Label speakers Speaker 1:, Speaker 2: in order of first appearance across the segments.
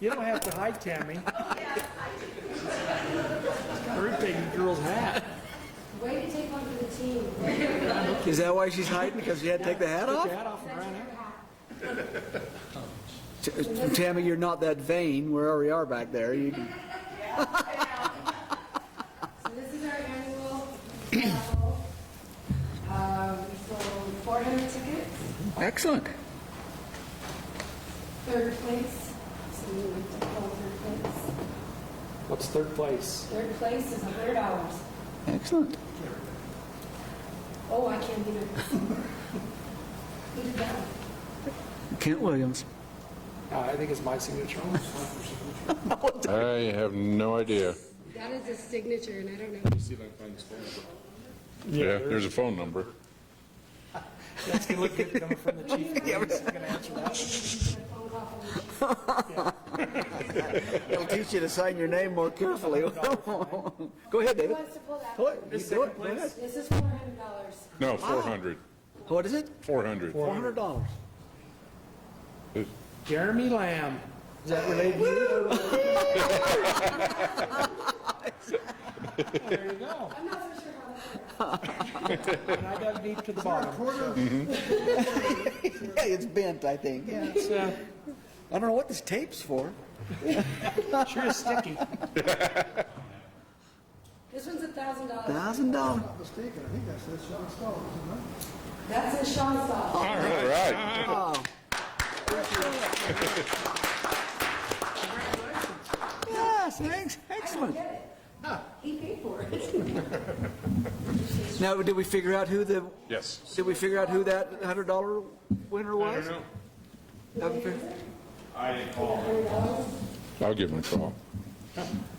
Speaker 1: You don't have to hide, Tammy. We're taking girl's hat.
Speaker 2: Way to take one for the team.
Speaker 3: Is that why she's hiding? Because she had to take the hat
Speaker 1: Take
Speaker 3: off?
Speaker 1: your hat off and run out.
Speaker 3: T- Tammy, you're not that vain, wherever we are back there. You can-
Speaker 2: So this is our annual travel. Um, We sold 400 tickets,
Speaker 3: Excellent.
Speaker 2: third place. So we went to hold third place.
Speaker 1: What's third place?
Speaker 2: Third place is $100.
Speaker 3: Excellent.
Speaker 2: Oh, I can't do it. Who did that?
Speaker 3: Kent Williams.
Speaker 1: Uh, I think it's my signature.
Speaker 4: I have no idea.
Speaker 2: That is a signature, and I don't know.
Speaker 4: Yeah, there's a phone number.
Speaker 1: That's gonna look good coming from the chief.
Speaker 3: It'll teach you to sign your name more carefully. Go ahead,
Speaker 2: Who
Speaker 3: David.
Speaker 2: wants to pull that?
Speaker 3: Go ahead. You do it. Go ahead.
Speaker 2: This is $400.
Speaker 4: No, 400,
Speaker 3: What is it?
Speaker 4: 400.
Speaker 3: $400.
Speaker 1: Jeremy Lamb. Is that related to you? There you go.
Speaker 2: I'm not so sure how that works.
Speaker 1: And I dug deep to the bottom.
Speaker 3: Yeah, it's bent, I think. Yeah.
Speaker 1: It's, uh,
Speaker 3: I don't know what this tape's for.
Speaker 1: Sure is sticky.
Speaker 2: This one's $1,000.
Speaker 3: $1,000.
Speaker 5: mistaken, I think that's, that's Sean Stoll, isn't it?
Speaker 2: That's in Sean's
Speaker 4: All
Speaker 2: file.
Speaker 4: right.
Speaker 3: Yes, thanks. Excellent.
Speaker 2: Get it? He paid for it.
Speaker 3: Now, did we figure out who the,
Speaker 4: Yes.
Speaker 3: did we figure out who that $100 winner was? Haven't figured-
Speaker 4: I'll give him a call.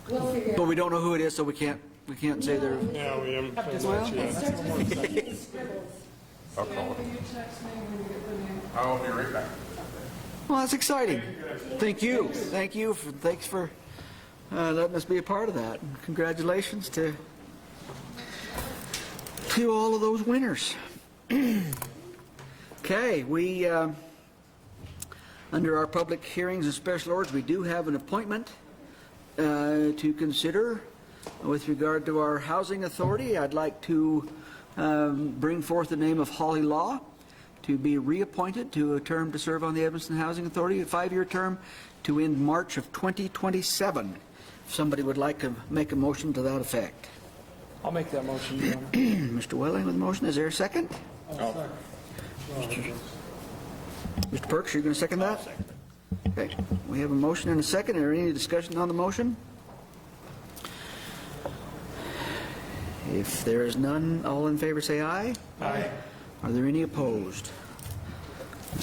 Speaker 2: We'll figure it
Speaker 3: But we don't know who it is, so we can't, we can't say they're,
Speaker 6: Yeah, we haven't.
Speaker 3: well,
Speaker 2: out. It starts with C and scribbles.
Speaker 4: I'll call him. I'll be right back.
Speaker 3: well, that's exciting. Thank you, thank you, for thanks for uh, letting us be a part of that. And Congratulations to, to all of those winners. Okay, we, um, under our public hearings and special orders, we do have an appointment uh, to consider with regard to our housing authority. I'd like to um, bring forth the name of Holly Law to be reappointed to a term to serve on the Evanston Housing Authority, a five-year term to end March of 2027. If somebody would like to make a motion to that effect.
Speaker 1: I'll make that motion, Your Honor. Oh,
Speaker 3: Mr. Welling with the motion, is there a second? Mr. Perks, you're going to second that? Okay, we have a motion and a second, Are there any discussion on the motion? If there is none, all in favor say aye.
Speaker 1: Aye.
Speaker 3: Are there any opposed?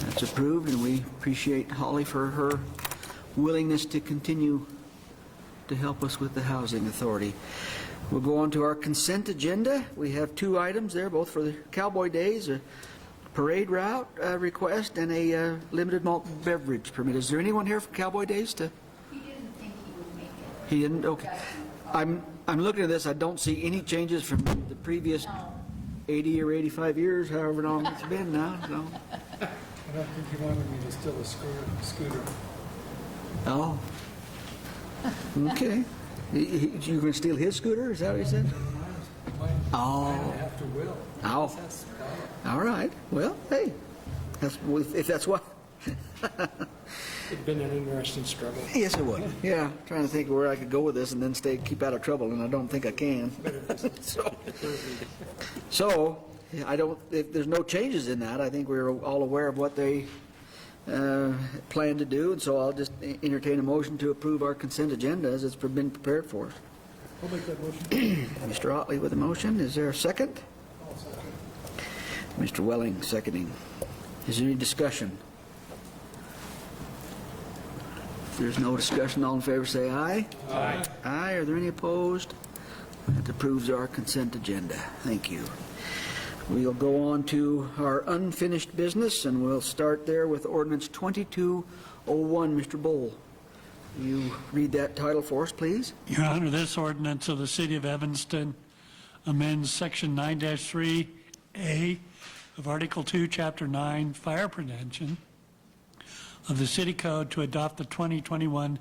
Speaker 3: That's approved, and we appreciate Holly for her willingness to continue to help us with the Housing Authority. We'll go on to our consent agenda. We have two items there, both for the Cowboy Days, a parade route uh, request, and a uh, limited malt beverage permit. Is there anyone here for Cowboy Days to? He didn't, okay. I'm, I'm looking at this, I don't see any changes from the previous 80 or 85 years, however long it's been now, so.
Speaker 5: I don't think he wanted me to steal a scooter, scooter.
Speaker 3: Oh. Okay. He- he- You gonna steal his scooter, is that what you said?
Speaker 5: I
Speaker 3: Oh,
Speaker 5: have to will.
Speaker 3: oh, all right, well, hey, that's, if that's what,
Speaker 1: It's been an interesting struggle.
Speaker 3: yes, it would. Yeah, trying to think where I could go with this and then stay, keep out of trouble, and I don't think I can. So- So, I don't, if there's no changes in that, I think we're all aware of what they uh, plan to do, and so I'll just e-, entertain a motion to approve our consent agenda as it's been prepared for us.
Speaker 5: I'll make that motion.
Speaker 3: Mr. Otley with a motion, is there a second? Mr. Welling seconding. Is there any discussion? If there's no discussion, all in favor say aye. Aye. Aye, are there any opposed? That approves our consent agenda, thank you. We'll go on to our unfinished business, and we'll start there with ordinance 2201. Mr. Bowl, you read that title for us, please?
Speaker 7: Your Honor, this ordinance of the City of Evanston amends Section 9-3A of Article 2, Chapter 9, Fire Prevention of the City Code to adopt the 2021